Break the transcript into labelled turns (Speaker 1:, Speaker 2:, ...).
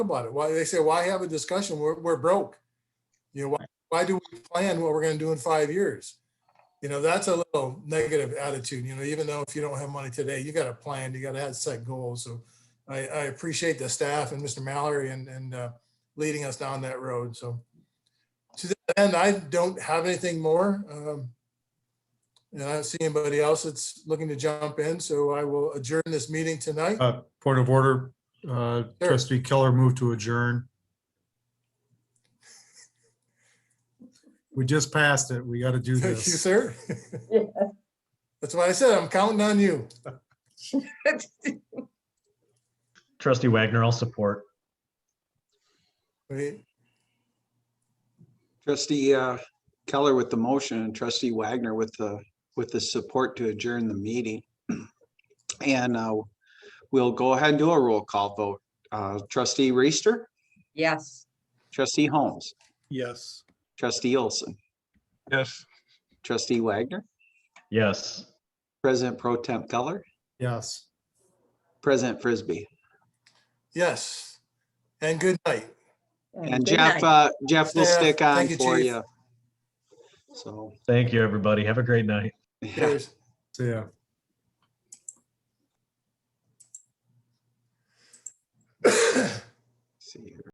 Speaker 1: about it. Why, they say, why have a discussion? We're, we're broke. You know, why, why do we plan what we're gonna do in five years? You know, that's a little negative attitude, you know, even though if you don't have money today, you gotta plan, you gotta have set goals. So I, I appreciate the staff and Mr. Mallory and, and, uh, leading us down that road, so. To that end, I don't have anything more. Um, and I don't see anybody else that's looking to jump in, so I will adjourn this meeting tonight.
Speaker 2: Uh, Point of order, uh,
Speaker 1: Sure.
Speaker 2: trustee Keller moved to adjourn. We just passed it. We got to do
Speaker 1: Thank you,
Speaker 2: this.
Speaker 1: sir.
Speaker 3: Yeah.
Speaker 1: That's why I said I'm counting on you.
Speaker 4: Trustee Wagner, I'll support.
Speaker 1: Wait,
Speaker 5: Trustee uh, Keller with the motion and trustee Wagner with the, with the support to adjourn the meeting. And uh, we'll go ahead and do a roll call vote. Uh, Trustee Reister,
Speaker 3: Yes.
Speaker 5: trustee Holmes,
Speaker 6: Yes.
Speaker 5: trustee Olson,
Speaker 6: Yes.
Speaker 5: trustee Wagner,
Speaker 4: Yes.
Speaker 5: President Pro Temp Keller,
Speaker 2: Yes.
Speaker 5: President Frisbee.
Speaker 1: Yes, and good night.
Speaker 5: And
Speaker 3: good
Speaker 5: Jeff,
Speaker 3: night.
Speaker 5: uh, Jeff will
Speaker 1: Yeah,
Speaker 5: stick on
Speaker 1: thank you,
Speaker 5: for
Speaker 1: Chief.
Speaker 5: you. So.
Speaker 4: Thank you, everybody. Have a great night.
Speaker 5: yeah.
Speaker 1: Cheers.
Speaker 2: So, Yeah.
Speaker 5: See you.